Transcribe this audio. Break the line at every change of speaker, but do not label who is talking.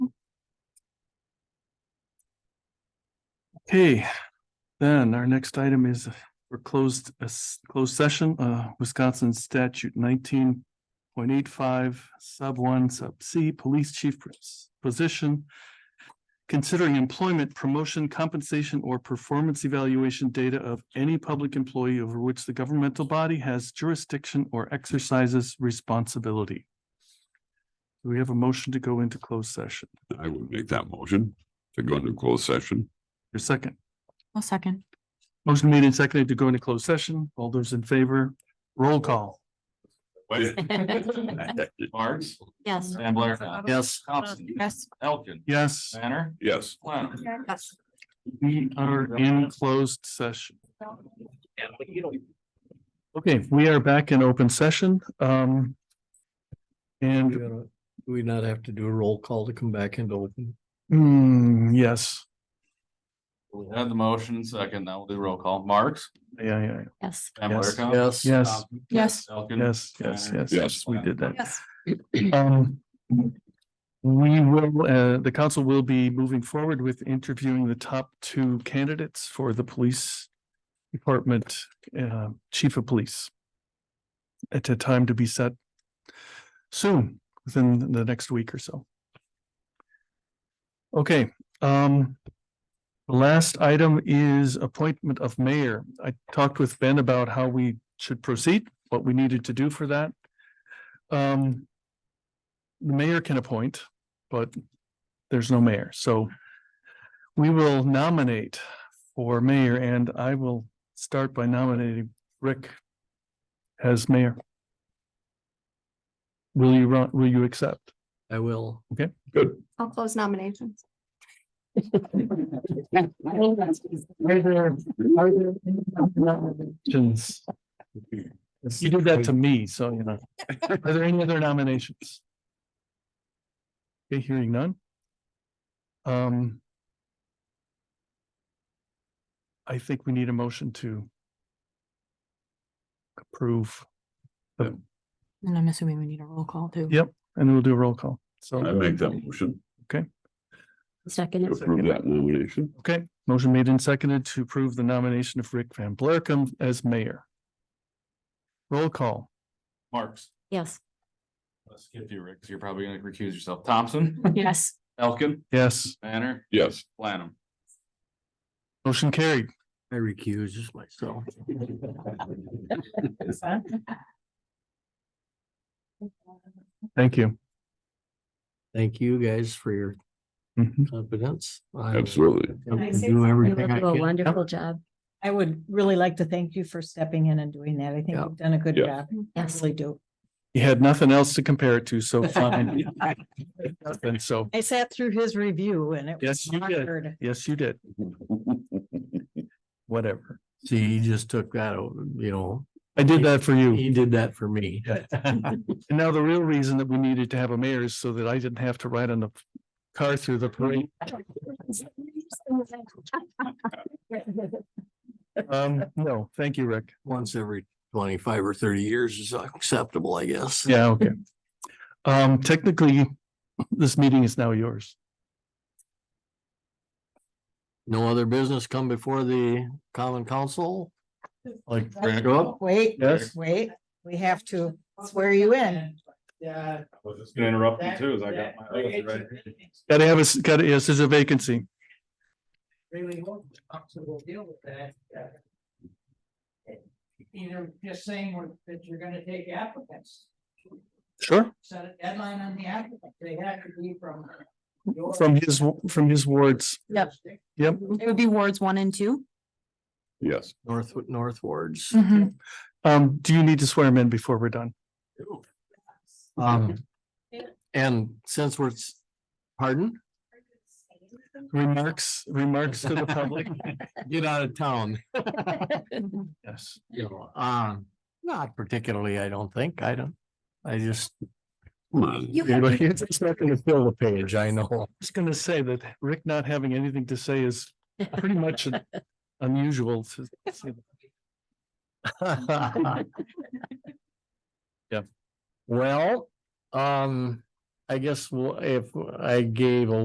Okay, then our next item is for closed, a s- closed session, uh, Wisconsin statute nineteen point eight five sub one sub C, police chief pos- position. Considering employment, promotion, compensation, or performance evaluation data of any public employee over which the governmental body has jurisdiction or exercises responsibility. Do we have a motion to go into closed session?
I would make that motion to go into closed session.
Your second?
I'll second.
Motion made and seconded to go into closed session. All those in favor, roll call.
Marks,
Yes.
Ambler.
Yes.
Thompson,
Yes.
Elkin,
Yes,
Banner,
Yes.
Planum.
Yes.
we are in closed session. Okay, we are back in open session. Um.
We
And,
gotta- do we not have to do a roll call to come back into open?
hmm, yes,
We had the motion second, now we'll do roll call. Marks.
yeah, yeah, yeah.
Yes.
Ambler. Thompson,
Yes.
yes,
Yes.
Elkin.
yes, yes, yes, yes, we did that.
Yes.
Um. We will, uh, the council will be moving forward with interviewing the top two candidates for the police. Department, uh, chief of police. At a time to be set. Soon, within the next week or so. Okay, um. the Last item is appointment of mayor. I talked with Ben about how we should proceed, what we needed to do for that. Um, the mayor can appoint, but there's no mayor, so we will nominate for mayor, and I will start by nominating Rick as mayor. Will you run, will you accept?
I will.
Good.
I'll close nominations.
Nominations. You did that to me, so you know. Are there any other nominations? Okay, hearing none. Um. I think we need a motion to. Approve,
And I'm assuming we need a roll call too.
Yeah. and we'll do a roll call,
I
so,
make that motion to
Second.
approve that nomination.
okay, motion made and seconded to approve the nomination of Rick Van Blarkum as mayor. Roll call,
Marks.
Yes.
Let's skip you, Rick, 'cause you're probably gonna recuse yourself. Thompson,
Yes.
Elkin,
yes,
Banner,
Yes.
Planum.
motion carried,
I recuse just myself.
thank you.
Thank you guys for your
Mhm.
confidence. I will
Absolutely.
attempt
I
to
say
Do
something?
You
everything
will
I
do a
can.
wonderful job.
I would really like to thank you for stepping in and doing that. I think
Yeah.
you've done a good
Yeah.
job. I
Yes.
really do.
You had nothing else to compare it to, so fine. And so,
I sat through his review and it
Yes,
was
you did.
monitored.
yes, you did, whatever.
See, he just took that, over, you know,
I did that for you.
he did that for me.
And now the real reason that we needed to have a mayor is so that I didn't have to ride on the car through the parade. Um, no, thank you, Rick.
Once every twenty-five or thirty years is acceptable, I guess.
Yeah, okay. Um, technically, this meeting is now yours.
No other business come before the common council? Like,
Right.
go up?
Wait,
Yes.
wait, we have to swear you in.
Yeah.
I was just gonna interrupt
you
too, as I
that-
Gotta have a, s- gotta, yes, there's a vacancy.
Really hope the council will deal with that. uh, Either just saying we're- that you're gonna take applicants,
Sure.
set a deadline on the applicant, they have to be from. your
From his, w- from his wards.
Yep.
jurisdiction.
It would be wards one and 2
Yes.
North, north wards.
Mm-hmm.
Um, do you need to swear him in before we're done?
Um, and since we're, s- pardon?
Remarks, remarks to the public?
Get out of town.
Yes.
You know, um, not particularly, I don't think. I don't, I just.
Come on.
You have-
It's it's not gonna fill the page, I know.
I was gonna say that Rick not having anything to say is pretty much an- unusual to.
Well, um, I guess we'll if I gave a